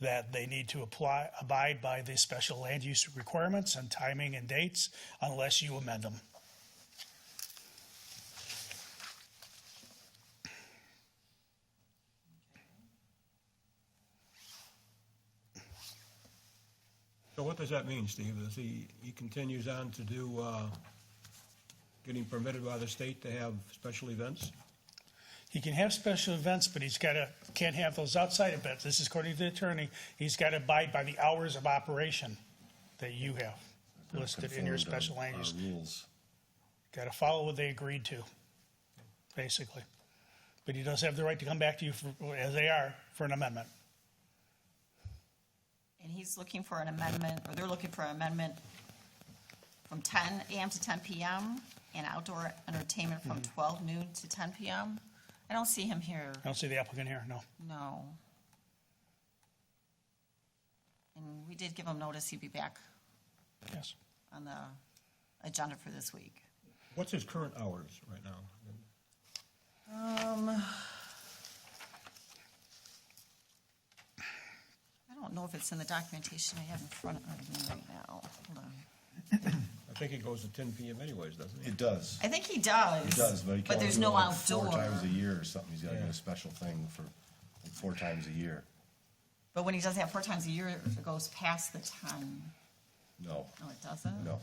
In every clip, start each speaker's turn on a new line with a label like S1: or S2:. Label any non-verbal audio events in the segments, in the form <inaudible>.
S1: that they need to apply, abide by the special land use requirements and timing and dates unless you amend them.
S2: So what does that mean, Steve? Is he, he continues on to do, uh, getting permitted by the state to have special events?
S1: He can have special events, but he's gotta, can't have those outside events. This is according to the attorney. He's gotta abide by the hours of operation that you have listed in your
S3: Conform to
S1: special land
S3: our
S1: use.
S3: Rules.
S1: Gotta follow what they agreed to, basically. But he does have the right to come back to you for, as they are, for an amendment.
S4: And he's looking for an amendment, or they're looking for an amendment from ten AM to ten PM and outdoor entertainment from
S3: Mm-hmm.
S4: twelve noon to ten PM. I don't see him here,
S3: Oh.
S1: I don't see the applicant here, no.
S4: no. And we did give him notice he'd be back
S1: Yes.
S4: on the agenda for this week.
S2: What's his current hours right now?
S4: I don't know if it's in the documentation I have in front of me right now. Hold on.
S2: I think he goes to ten PM anyways, doesn't he?
S3: It does.
S4: I think he does.
S3: It does, but he can only
S4: there's
S3: do it
S4: no
S3: like
S4: outdoor.
S3: Four times a year or something. He's gotta get
S2: Yeah.
S3: a special thing for like four times a year.
S4: But when he does that four times a year, it goes past the ten.
S3: No,
S4: No, it doesn't?
S3: no.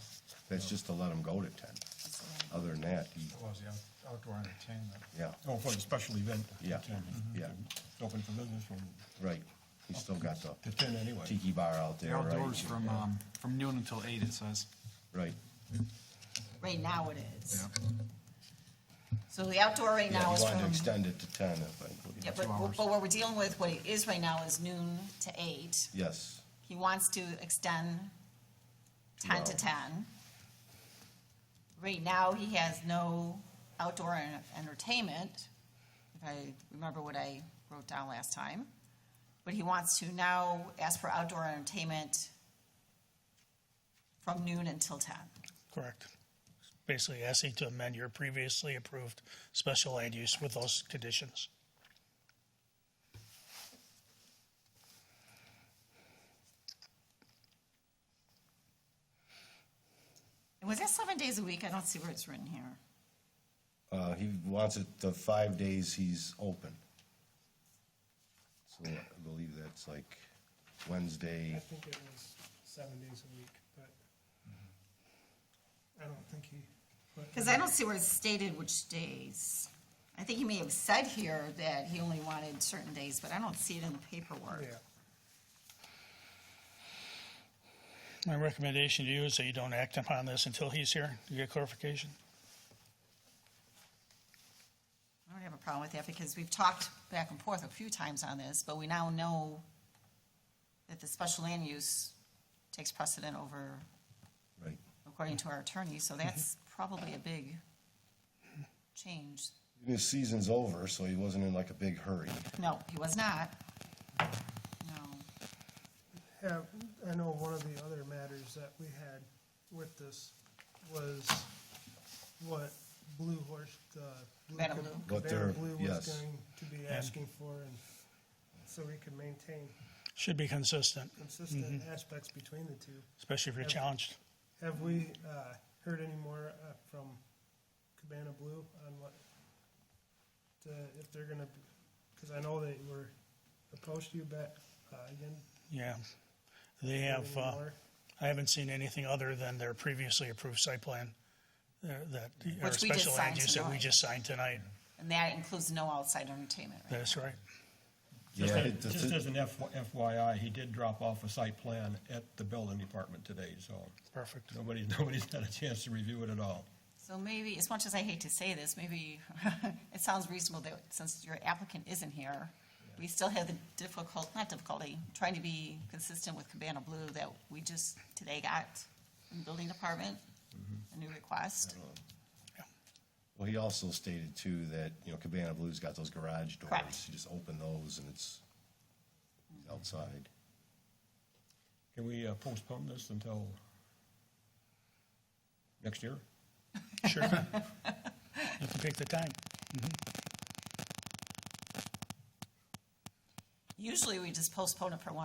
S3: That's just to let him go to ten.
S4: That's the way-
S3: Other than that, he,
S5: Well, it's the out- outdoor entertainment.
S3: yeah,
S2: Oh, for the special event.
S3: Yeah.
S2: to 10.
S1: Mm-hmm.
S3: yeah,
S2: It's Open for business from,
S3: right. He's still got the
S2: to ten anyway.
S3: tiki bar out
S5: The
S3: there, right?
S5: outdoors from,
S3: Yeah,
S5: um, from noon until eight, it says.
S3: Right.
S4: Right now it is. So the outdoor right
S3: Yeah,
S4: now
S3: he
S4: is
S3: wanted to
S4: from,
S3: extend it to ten, if I,
S4: yeah, but,
S5: hours.
S4: but what we're dealing with, what it is right now is noon to eight.
S3: yes,
S4: He wants to extend ten to
S3: hours.
S4: ten. Right now, he has no outdoor en- entertainment, if I remember what I wrote down last time. But he wants to now ask for outdoor entertainment from noon until ten.
S1: Correct. Basically asking to amend your previously approved special land use with those conditions.
S4: And was that seven days a week? I don't see where it's written here.
S3: uh, he wants it the five days he's open. So I believe that's like
S6: I
S3: Wednesday,
S6: think it was seven days a week, but I don't think he. put-
S4: Because I don't see where it's stated which days. I think he may have said here that he only wanted certain days, but I don't see it in the paperwork.
S6: Yeah.
S1: My recommendation to you is that you don't act upon this until he's here to get clarification.
S4: I don't have a problem with that because we've talked back and forth a few times on this, but we now know that the special land use takes precedent over,
S3: right?
S4: according to our attorney, so that's probably a big change.
S3: His season's over, so he wasn't in like a big hurry.
S4: No, he was not. No.
S6: Yeah, I know one of the other matters that we had with this was what Blue Horse, the. Blue
S4: Cabana
S6: Cab-
S4: Blue.
S3: What
S6: Cabana
S3: they're-
S6: Blue
S3: yes.
S6: was going to be asking for and so we could maintain
S1: Should be consistent,
S6: consistent
S3: Mm-hmm.
S6: aspects between the two.
S1: especially if you're
S6: Okay.
S1: challenged.
S6: Have we uh, heard any more uh, from Cabana Blue on what, the- if they're gonna, because I know they were opposed to you back uh, again?
S1: Yeah. They have,
S6: Any
S1: uh,
S6: more?
S1: I haven't seen anything other than their previously approved site plan uh, that, or
S4: Which we just
S1: special land
S4: signed
S1: use that we
S4: tonight.
S1: just signed tonight.
S4: And that includes no outside entertainment, right?
S1: That's right.
S2: Just
S3: Yeah,
S2: as-
S3: the-
S2: Just as an FYI, he did drop off a site plan at the building department today, so
S1: Perfect.
S2: nobody's, <laughs> nobody's had a chance to review it at all.
S4: So maybe, as much as I hate to say this, maybe <laughs> it sounds reasonable that since your applicant isn't here, we still have the difficult, not difficulty, trying to be consistent with Cabana Blue that we just today got in the building department, a new request.
S3: Well, he also stated too that, you know, Cabana Blue's got those garage
S4: Correct.
S3: doors. You just open those and it's outside.
S2: Can we uh, postpone this until next year?
S1: Sure. You can pick the time.
S4: Usually we just postpone it for one